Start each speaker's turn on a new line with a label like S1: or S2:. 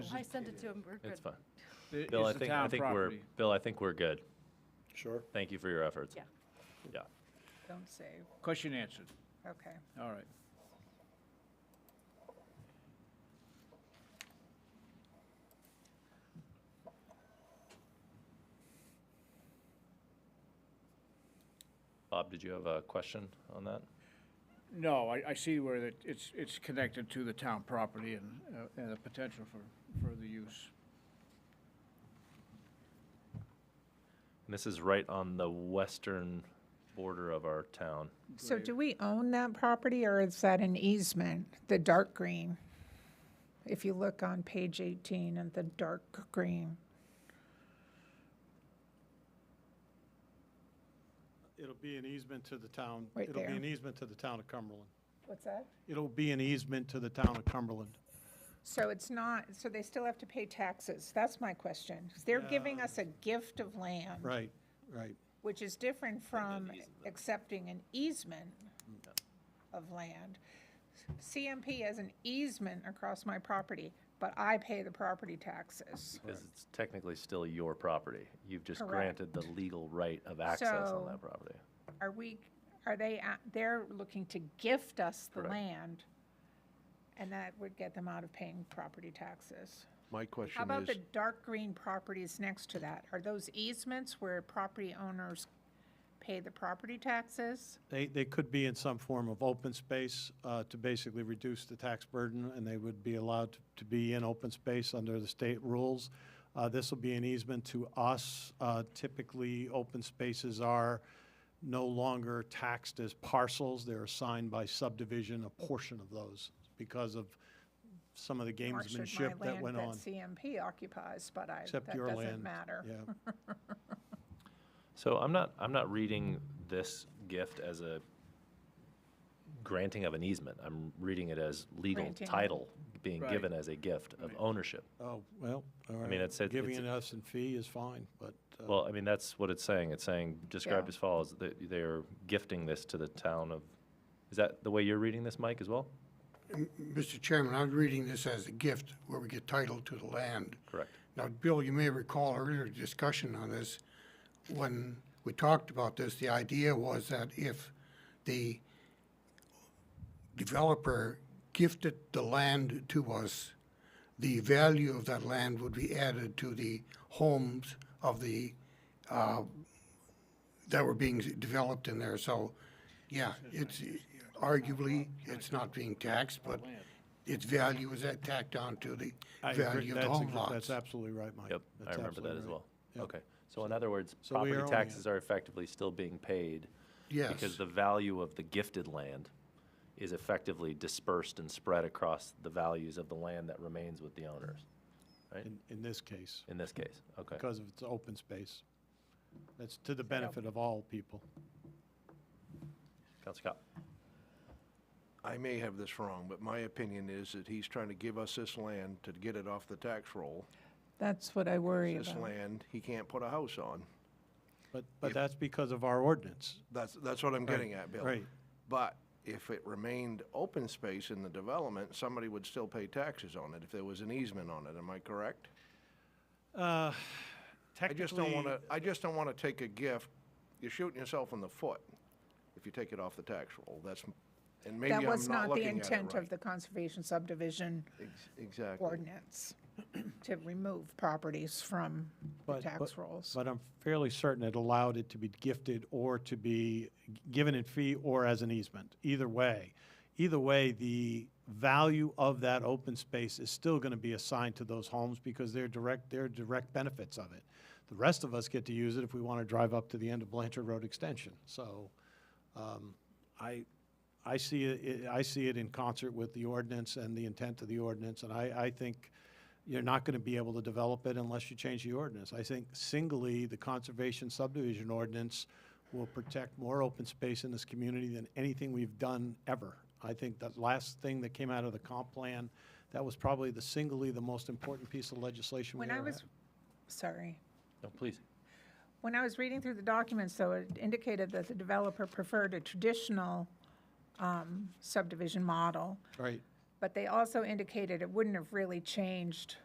S1: I sent it to him, we're good.
S2: It's fine.
S3: It
S2: Bill, I
S3: is the
S2: think, I
S3: town
S2: think we're,
S3: property.
S2: Bill, I think we're good.
S4: Sure.
S2: Thank you for your efforts.
S1: Yeah.
S2: Yeah.
S5: Don't save,
S3: Question answered.
S5: okay.
S3: All right.
S2: Bob, did you have a question on that?
S3: No, I, I see where that it's, it's connected to the town property and, uh, and the potential for further use.
S2: And This is right on the western border of our town.
S5: So
S3: Great.
S5: do we own that property or is that an easement, the dark green? If you look on page 18 and the dark green,
S4: It'll be an easement to the town.
S5: Right
S4: It'll
S5: there.
S4: be an easement to the town of Cumberland.
S5: what's that?
S4: It'll be an easement to the town of Cumberland.
S5: So it's not, so they still have to pay taxes, that's my question. 'Cause They're giving us a gift of land.
S4: Right, right.
S5: Which is different from accepting an easement of land. CMP has an easement across my property, but I pay the property taxes.
S2: Because it's technically still your property. You've just
S5: Correct.
S2: granted the legal right of access on
S5: So-
S2: that property.
S5: Are we, are they, a- they're looking to gift us the
S2: Correct.
S5: land, and that would get them out of paying property taxes.
S6: My
S5: How
S6: question
S5: about the
S6: is,
S5: dark green properties next to that? Are those easements where property owners pay the property taxes?
S4: They, they could be in some form of open space uh, to basically reduce the tax burden, and they would be allowed to- to be in open space under the state rules. Uh, This will be an easement to us. Uh, Typically, open spaces are no longer taxed as parcels. They're assigned by subdivision, a portion of those, because of some of the
S5: Or should my
S4: gamesmanship that
S5: land
S4: went on.
S5: CMP occupies, but I, that
S4: Except your land.
S5: doesn't matter.
S4: Yeah.
S2: So I'm not, I'm not reading this gift as a granting of an easement. I'm reading it as legal
S5: Granting.
S2: title being
S3: Right.
S2: given as a gift of ownership.
S4: Oh, well, all right.
S2: mean, it said-
S4: Giving
S2: it's-
S4: it us in fee is fine, but. uh,
S2: Well, I mean, that's what it's saying. It's saying, described
S5: Yeah.
S2: as follows, that they're gifting this to the town of, is that the way you're reading this, Mike, as well?
S7: Mr. Chairman, I'm reading this as a gift where we get title to the land.
S2: Correct.
S7: Now, Bill, you may recall earlier discussion on this. When we talked about this, the idea was that if the developer gifted the land to us, the value of that land would be added to the homes of the, uh, that were being developed in there. So, yeah, it's arguably, it's not being taxed, but its value is tacked on to the
S4: I agree.
S7: value of the
S4: That's
S7: home
S4: ex-
S7: lots.
S4: That's absolutely right, Mike.
S2: Yep, I
S4: That's
S2: remember that
S4: absolutely
S2: as
S4: right.
S2: well.
S4: Yep.
S2: Okay, so in other words,
S4: So we are
S2: property
S4: owning it.
S2: taxes are effectively still being paid because
S7: Yes.
S2: the value of the gifted land is effectively dispersed and spread across the values of the land that remains with the owners,
S4: In, in this case,
S2: in this case, okay.
S4: because of its open space. That's to the benefit of all people.
S2: Counselor Cop?
S6: I may have this wrong, but my opinion is that he's trying to give us this land to get it off the tax roll.
S5: That's what I worry
S6: This land, he can't put a house on.
S4: But, but that's because of our ordinance.
S6: That's, that's what I'm getting at, Bill.
S4: right.
S6: But if it remained open space in the development, somebody would still pay taxes on it if there was an easement on it. Am I correct?
S4: Uh,
S6: I just don't want
S4: Technically,
S6: to, I just don't want to take a gift. You're shooting yourself in the foot if you take it off the tax roll. That's, and maybe I'm
S5: That was
S6: not looking at it
S5: not the intent of
S6: right.
S5: the conservation subdivision
S6: Ex- Exactly.
S5: ordinance, to remove properties from the
S4: But-
S5: tax
S4: but-
S5: rolls.
S4: but I'm fairly certain it allowed it to be gifted or to be g- given in fee or as an easement, either way. Either way, the value of that open space is still going to be assigned to those homes because they're direct, they're direct benefits of it. The rest of us get to use it if we want to drive up to the end of Blanchard Road Extension. So um, I, I see it, I see it in concert with the ordinance and the intent of the ordinance, and I, I think you're not gonna be able to develop it unless you change the ordinance. I think singly, the conservation subdivision ordinance will protect more open space in this community than anything we've done ever. I think that last thing that came out of the comp plan, that was probably the singly the most important piece of legislation we
S5: When I
S4: ever had.
S5: was, sorry.
S2: No, please.
S5: When I was reading through the documents, though, it indicated that the developer preferred a traditional um, subdivision model,
S4: Right,
S5: but they also indicated it wouldn't have really changed